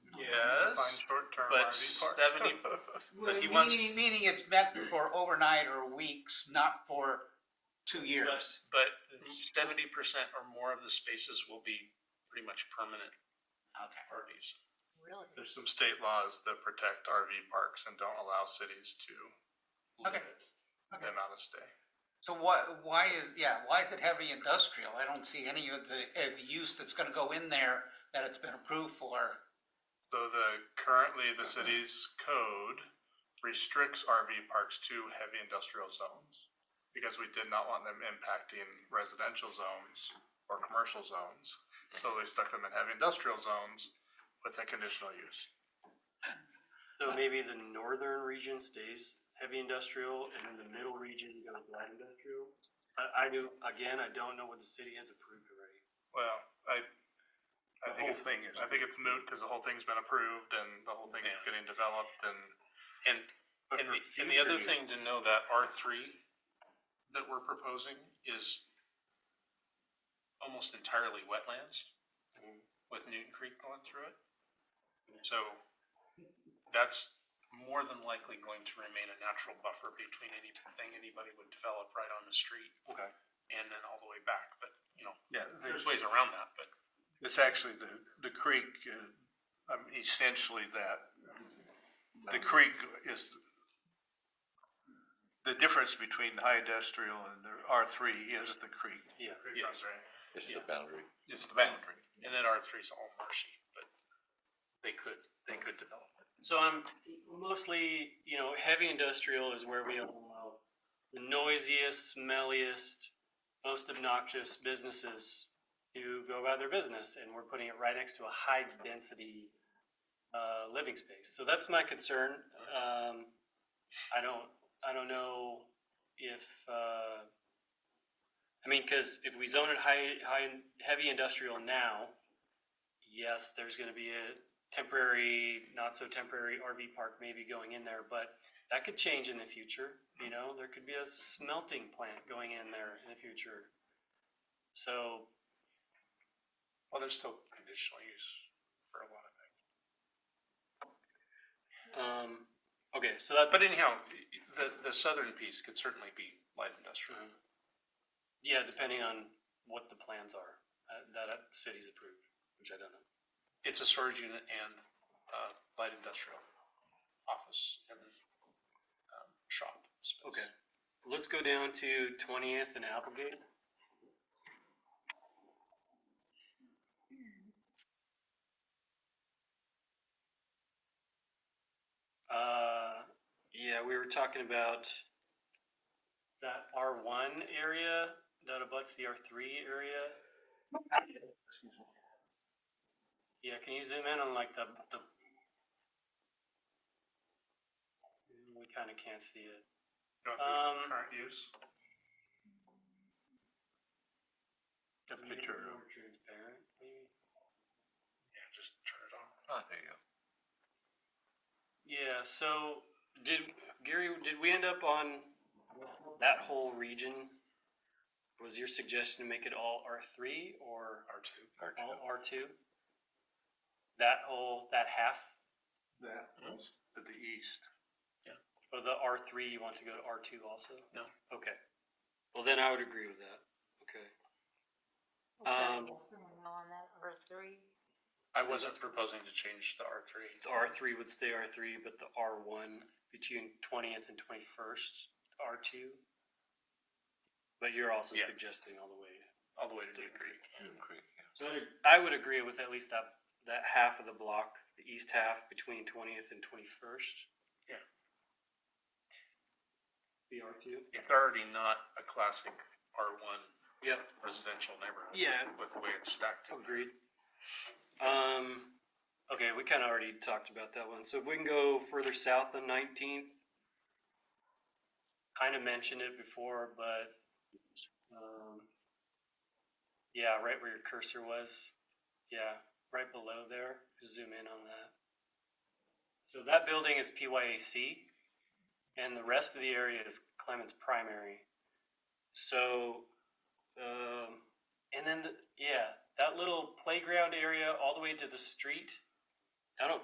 Define does, short-term but RV park. seventy, but he wants- Meaning, meaning it's meant for overnight or weeks, not for two but, years. but seventy percent or more of the spaces will be pretty much permanent Okay. RVs. Really? There's some state laws that protect RV parks and don't allow cities to Okay. limit Okay. the amount of stay. So what, why is, yeah, why is it heavy industrial? I don't see any of the, of the use that's gonna go in there that it's been approved for. So the, currently the city's code restricts RV parks to heavy industrial zones. Because we did not want them impacting residential zones or commercial zones. So they stuck them in heavy industrial zones with a conditional use. Uh, So maybe the northern region stays heavy industrial and then the middle region goes light industrial? I, I do, again, I don't know what the city has approved already. Well, I, I The think whole it's, thing is- I think it's moot because the whole thing's been approved and the whole thing's Yeah. getting developed and And, But and for the, and the other future thing to know that R three that we're proposing is almost entirely wetlands with Newton Creek going through it. So that's more than likely going to remain a natural buffer between anything anybody would develop right on the street use- Okay. and then all the way back, but, you know, Yeah, there's ways around that, but it's actually the, the creek, uh, um, essentially that. The creek is the difference between high industrial and the R three is the creek. Yeah. it Yeah. runs right. It's Yeah. the boundary. It's the boundary. And then R three is all marshy, but they could, they could develop it. So I'm mostly, you know, heavy industrial is where we allow the noisiest, smelliest, most obnoxious businesses to go about their business, and we're putting it right next to a high density uh, living space. So that's my concern. Um, I don't, I don't know if, uh, I mean, because if we zone it high, high, heavy industrial now, yes, there's gonna be a temporary, not so temporary RV park maybe going in there, but that could change in the future, you know, there could be a smelting plant going in there in the future. So, Well, there's still conditional use for a lot of things. um, okay, so that's, But anyhow, the, the southern piece could certainly be light industrial. uh-huh. Mm-hmm. yeah, depending on what the plans are, uh, that uh, city's approved, which I don't know. It's a storage unit and, uh, light industrial office and, um, shop space. Okay, let's go down to twentieth and Applegate. Uh, yeah, we were talking about that R one area that abuts the R three area. Yeah, can you zoom in on like the, the? We kinda can't see it. You know, Um, the Current use. A picture of- More transparent, maybe? Yeah, just turn it on. Ah, there you go. Yeah, so did, Gary, did we end up on that whole region? Was your suggestion to make it all R three or R two. Hard to all know. R two? That whole, that half That was to the east. of the R three, you want to go to R two also? No. Okay. Well, then I would agree with that. Okay. Um, On that, or three? I wasn't proposing to change the R three. The R three would stay R three, but the R one between twentieth and twenty-first, R two. But you're also Yeah. suggesting all the way. All the way to Newton Creek. Agree, yeah. So I would agree with at least that, that half of the block, the east half between twentieth and twenty-first. Yeah. The R two? It's already not a classic R one Yep, residential neighborhood. Yeah. With the way it's stacked. in there. agreed. Um, okay, we kinda already talked about that one, so if we can go further south than nineteenth. Kinda mentioned it before, but, um, yeah, right where your cursor was, yeah, right below there, zoom in on that. So that building is PYAC, and the rest of the area is Clements Primary. So, um, and then, the, yeah, that little playground area all the way to the street. I don't